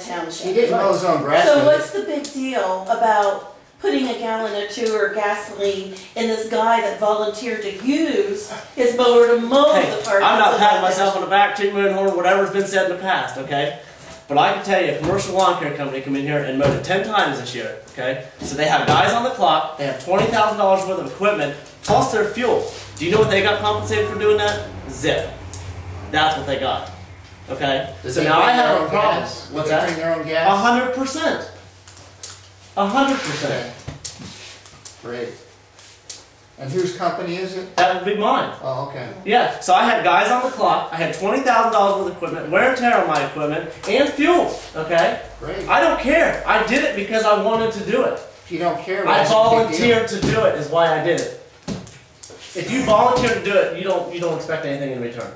township. She didn't mow his own grass. So but- what's the big deal about putting a gallon or two or gasoline in this guy that volunteered to use his mower to mow Hey, the park? I'm not that's patting about myself it. on the back, tooting my own horn, whatever's been said in the past, okay? But I can tell you, a commercial lawn care company come in here and mowed it ten times this year, okay? So they have guys on the clock, they have twenty thousand dollars worth of equipment, plus their fuel. Do you know what they got compensated for doing that? Zip. That's what they got, okay? Does So they now bring I their have own a problem. gas? What's Do they that? bring their own A gas? hundred percent. A hundred percent. Great. And whose company is it? That would be mine. Oh, okay. Yeah, so I had guys on the clock. I had twenty thousand dollars worth of equipment, wear and tear on my equipment, and fuel. Okay, Great. I don't care. I did it because I wanted to do it. If you don't care, I that's a big deal. volunteered to do it. Is why I did it. If you volunteer to do it, you don't you don't expect anything in return.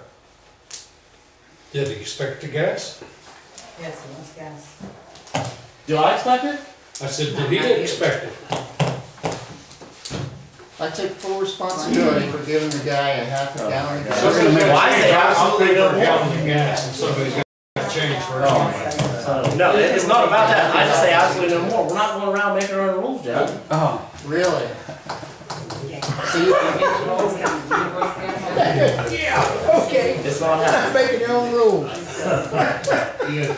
Did he expect the gas? Yes, he wants gas. Do I expect it? I said, did he expect it? I take full responsibility for giving the guy a half Oh, a gallon. of So gas. we're gonna make Well, I a say change. I'll absolutely pay no for a more. gallon of gas, and somebody's got to change for it. So, no, it- it's not about that. I just say absolutely no more. We're not going around making our own rules, Jeff. Really? So you can It's not happening. make your own rules. You had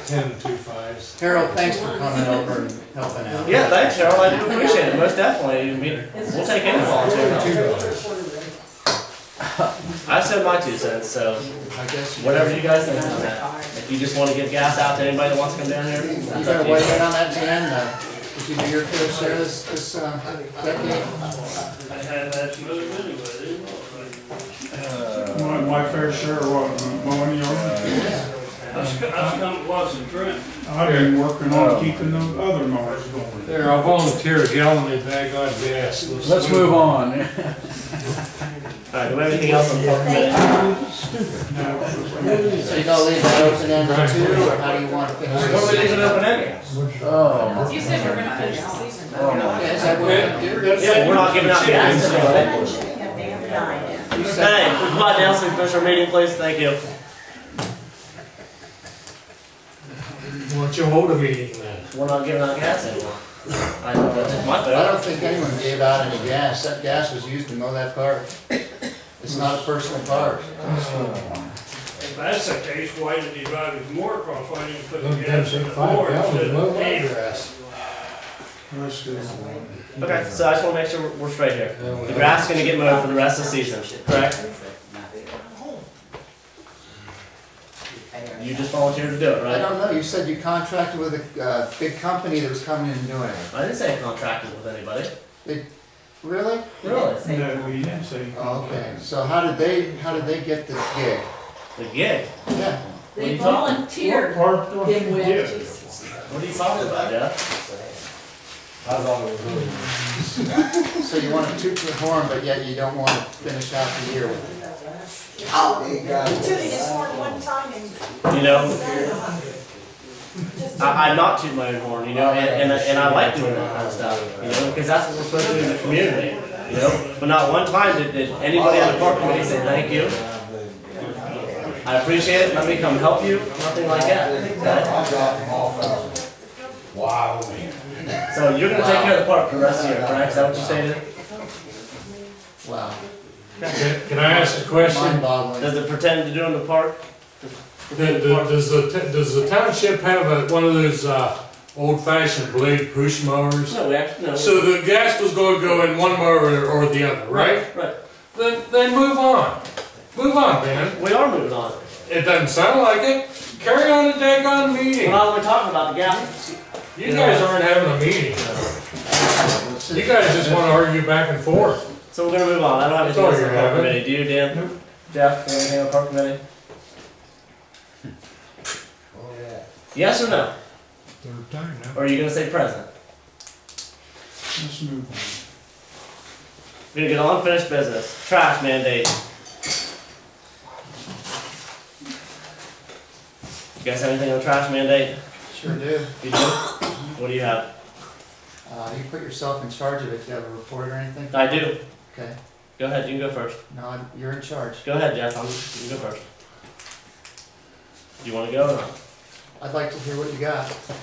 ten two fives. Harold, thanks for coming over and helping out. Yeah, thanks, Cheryl. I do appreciate it most definitely. I mean, we'll take any volunteer. Two dollars. I said my two cents, so. I guess you. Whatever you guys think on that. If you just wanna give gas out to anybody that wants to come down here, You that's up better to weigh you. in on that, Jan, though. Did you do your fair share this, this, uh, decade? I had that move anyway, didn't I? My, my fair share of uh, mowing yards. I've come close and trim. I've been working on keeping those other mowers going. There, I volunteer a gallon of bag on gas. Let's move on. Alright, do we have anything else on park committee? So you gonna leave that open ended too, or how do you wanna finish What are we this? leaving open ended? Oh, You said we're gonna finish the season. Yeah, is that what we're gonna do? Yeah, but we're not giving out gas to anybody. You Hey, said- we're glad to ask you finish our meeting, please, thank you. Why do you hold a meeting then? We're not giving out gas anymore. I know, that's my I vote. don't think anyone gave out any gas, that gas was used to mow that park. It's not a personal park. If that's the case, why did he drive his mower across, why didn't he put the Them gas in ten the five mower instead gallons, no of the hand? grass. Okay, so I just wanna make sure we're- we're straight here. The grass is gonna get mowed for the rest of the season, correct? You just volunteered to do it, I right? don't know, you said you contracted with a, uh, big company that was coming in and doing it. I didn't say I contracted with anybody, Really? Mm-hmm. really. No, he didn't say. Oh, Okay, so how did they, how did they get this gig? The gig, Yeah, They volunteered. Or- or- Big win. yeah. what are you talking about, Jeff? I thought it was really. so you wanna toot your horn, but yet you don't wanna finish out the year with it. you know. I, I not toot my own horn, you know, and, and, and I like doing that kind of stuff, you know, because that's what we're supposed to do in the community, you know. But not one time did, did anybody on the park committee say thank you. I appreciate it. Let me come help you. Nothing like that. okay? Wow, man. So you're gonna take care of the park for the rest of the year, correct? Is that what you stated? Wow, Can can I ask a question? mind boggling. Does it pretend to doing the park? Th- th- Does the, t- does the township have a, one of those, uh, old fashioned blade push mowers? No, we actually no. So the gas was going to go in one mower or the other, right? Right. Then, then move on. Move on, man. We are moving on. It doesn't sound like it. Carry on the daggone We're meeting. not only talking about the gas. You guys aren't having a meeting. You guys just want to argue back and forth. So we're gonna move on. I don't have anything Sorry, else on the park Evan. committee. Do you, Dan? Jeff, do you have anything on the park committee? Oh, Yes or no? Third time now. Or are you gonna say present? Let's move on. We're gonna get on unfinished business. Trash mandate. You guys have anything on trash mandate? Sure do. You do? What do you have? Uh, you put yourself in charge of it, do you have a report or anything? I do. Okay, Go ahead, you can go first. no, you're in charge. Go ahead, Jeff. I'm, you can go first. Do you wanna go or not? I'd like to hear what you got.